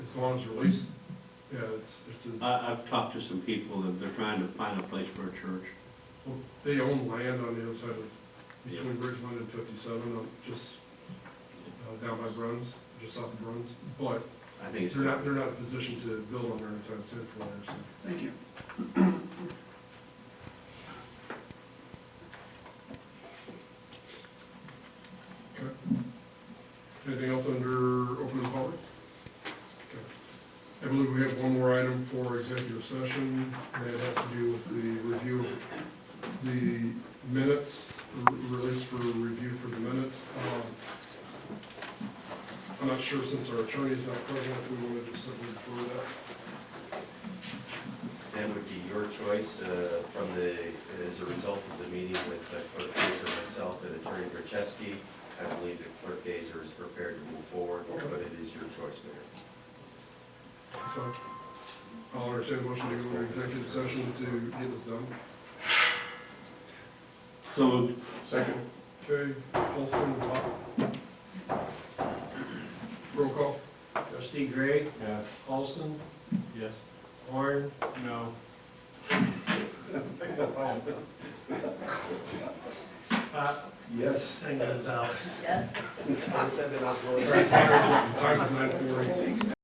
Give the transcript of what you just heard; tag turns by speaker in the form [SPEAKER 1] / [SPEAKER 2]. [SPEAKER 1] as long as you release, yeah, it's, it's, it's-
[SPEAKER 2] I, I've talked to some people that they're trying to find a place for a church.
[SPEAKER 1] well, they own land on the other side of, between Bridgeland and fifty-seven, uh, just uh, down by Bruns, just south of Bruns, but
[SPEAKER 2] I think it's,
[SPEAKER 1] they're not, they're not in a position to build on there anytime soon for there, so.
[SPEAKER 3] Thank you.
[SPEAKER 1] Okay. Anything else under open and public? Okay. I believe we have one more item for executive session, and that has to do with the review of the minutes, r- release for review for the minutes. Um, I'm not sure, since our attorney is not present, if we wanted to simply refer that.
[SPEAKER 4] That would be your choice uh, from the, as a result of the meeting with uh, Clerk Gazer, myself, and Attorney Grisheski. I believe that Clerk Gazer is prepared to move forward, but it is your choice, Mayor.
[SPEAKER 1] So I'll entertain a motion to go into executive session to get this done.
[SPEAKER 2] so moved.
[SPEAKER 1] Second. Okay, Paulson, Bob. Roll call.
[SPEAKER 5] Trustee Gray,
[SPEAKER 2] Yes.
[SPEAKER 5] Paulson,
[SPEAKER 2] Yes.
[SPEAKER 5] Horn,
[SPEAKER 2] No.
[SPEAKER 5] Pop,
[SPEAKER 2] Yes.
[SPEAKER 5] and Gonzalez.
[SPEAKER 1] All right, Time time is nine forty.